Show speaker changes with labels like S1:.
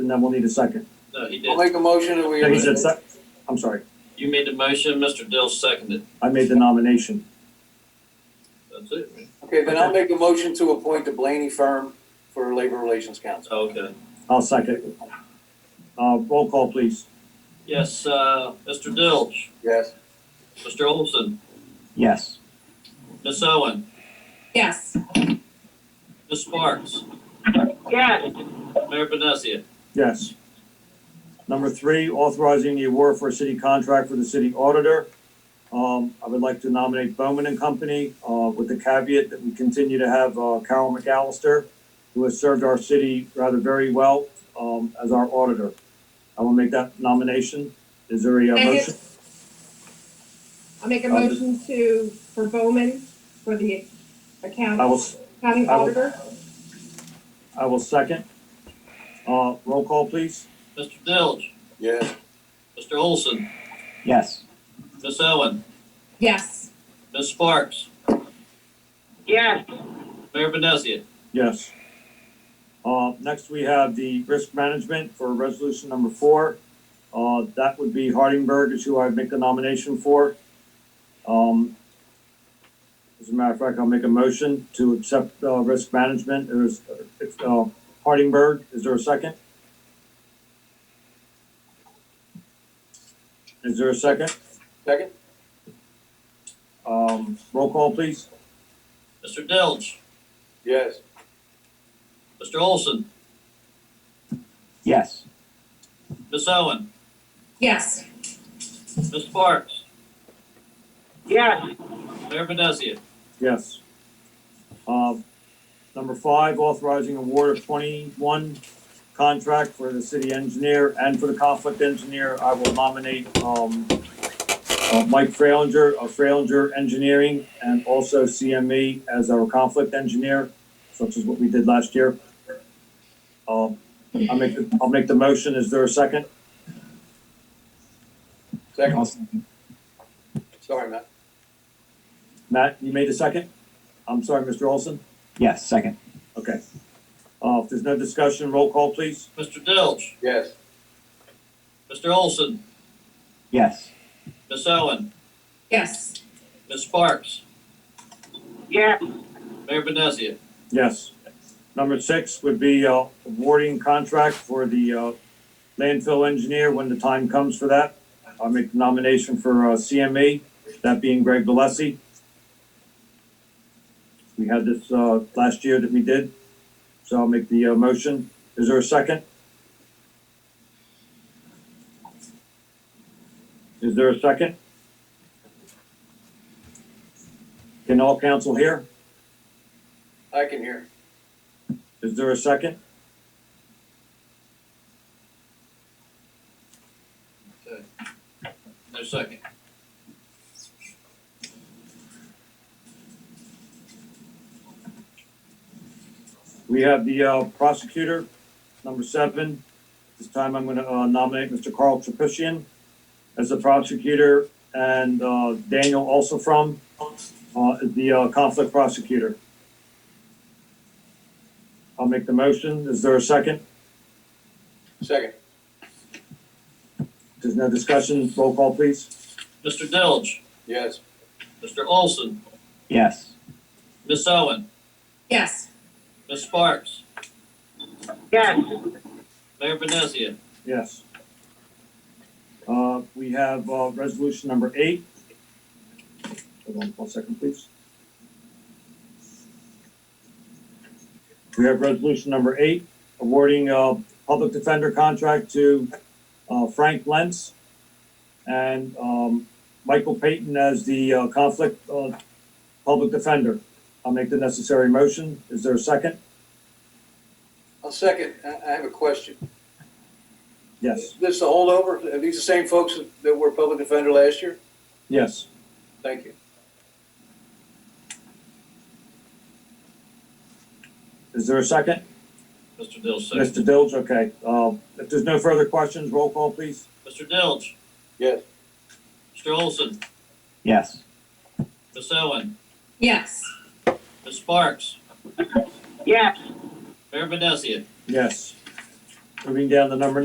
S1: then we'll need a second.
S2: No, he
S3: I'll
S2: did.
S3: make a motion that we.
S1: He said sec, I'm sorry,
S2: You made the motion, Mr. Dill seconded.
S1: I made the nomination.
S2: That's it, right?
S3: Okay, then I'll make a motion to appoint the Blaney firm for Labor Relations Council.
S2: Okay.
S1: I'll second. Uh, roll call, please.
S2: Yes, uh, Mr. Dilch,
S3: Yes.
S2: Mr. Olson,
S1: Yes.
S2: Miss Owen,
S4: Yes.
S2: Miss Sparks,
S4: Yes.
S2: Mayor Benesia.
S1: Yes. Number three, authorizing the award for a city contract for the city auditor. Um, I would like to nominate Bowman and Company, uh, with the caveat that we continue to have, uh, Carol McAllister, who has served our city rather very well, um, as our auditor. I will make that nomination. Is there a uh, motion?
S4: Second. I'll make a motion to, for Bowman, for the account,
S1: I will, s-
S4: county
S1: I will-
S4: auditor.
S1: I will second. Uh, roll call, please.
S2: Mr. Dilch,
S3: Yes.
S2: Mr. Olson,
S1: Yes.
S2: Miss Owen,
S4: Yes.
S2: Miss Sparks,
S4: Yes.
S2: Mayor Benesia.
S1: Yes. Uh, next we have the risk management for resolution number four. Uh, that would be Hardingberg is who I make the nomination for. Um, as a matter of fact, I'll make a motion to accept, uh, risk management. There's, uh, Hardingberg, is there a second? Is there a second?
S3: Second?
S1: Um, roll call, please.
S2: Mr. Dilch,
S3: Yes.
S2: Mr. Olson,
S1: Yes.
S2: Miss Owen,
S4: Yes.
S2: Miss Sparks,
S4: Yes.
S2: Mayor Benesia.
S1: Yes. Um, Number five, authorizing award of twenty-one contract for the city engineer and for the conflict engineer. I will nominate um, uh, Mike Frailinger of Frailinger Engineering and also CME as our conflict engineer, such as what we did last year. Um, I'll make, the- I'll make the motion. Is there a second?
S3: Second? Sorry, Matt.
S1: Matt, you made a second? I'm sorry, Mr. Olson?
S5: Yes, second.
S1: Okay. Uh, If there's no discussion, roll call, please.
S2: Mr. Dilch,
S3: Yes.
S2: Mr. Olson,
S5: Yes,
S2: Miss Owen,
S4: Yes.
S2: Miss Sparks,
S4: Yes.
S2: Mayor Benesia.
S1: Yes. Number six would be uh, awarding contract for the uh, landfill engineer when the time comes for that. I'll make the nomination for uh, CME, that being Greg Valesi. We had this uh, last year that we did, so I'll make the uh, motion. Is there a second? Is there a second? Can all council hear?
S3: I can hear.
S1: Is there a second?
S2: No second.
S1: We have the uh, prosecutor, number seven. This time I'm gonna uh, nominate Mr. Carl Tripusian as the prosecutor and uh, Daniel also from uh, the uh, conflict prosecutor. I'll make the motion. Is there a second?
S3: Second?
S1: There's no discussion. Roll call, please.
S2: Mr. Dilch,
S3: Yes.
S2: Mr. Olson,
S5: yes,
S2: Miss Owen,
S4: Yes.
S2: Miss Sparks,
S4: Yes.
S2: Mayor Benesia.
S1: Yes. Uh, We have uh, resolution number eight. Hold on one second, please. We have resolution number eight, awarding a public defender contract to uh, Frank Lentz and um, Michael Payton as the uh, conflict uh, public defender. I'll make the necessary motion. Is there a second?
S3: I'll second. I, I have a question.
S1: Yes,
S3: This is a holdover? Are these the same folks that were public defender last year?
S1: yes.
S3: Thank you.
S1: Is there a second?
S2: Mr. Dilch second.
S1: Mr. Dilge, okay. Uh, If there's no further questions, roll call, please.
S2: Mr. Dilch,
S3: Yes.
S2: Mr. Olson,
S5: yes,
S2: Miss Owen,
S4: Yes.
S2: Miss Sparks,
S4: Yes.
S2: Mayor Benesia.
S1: Yes. Moving down to number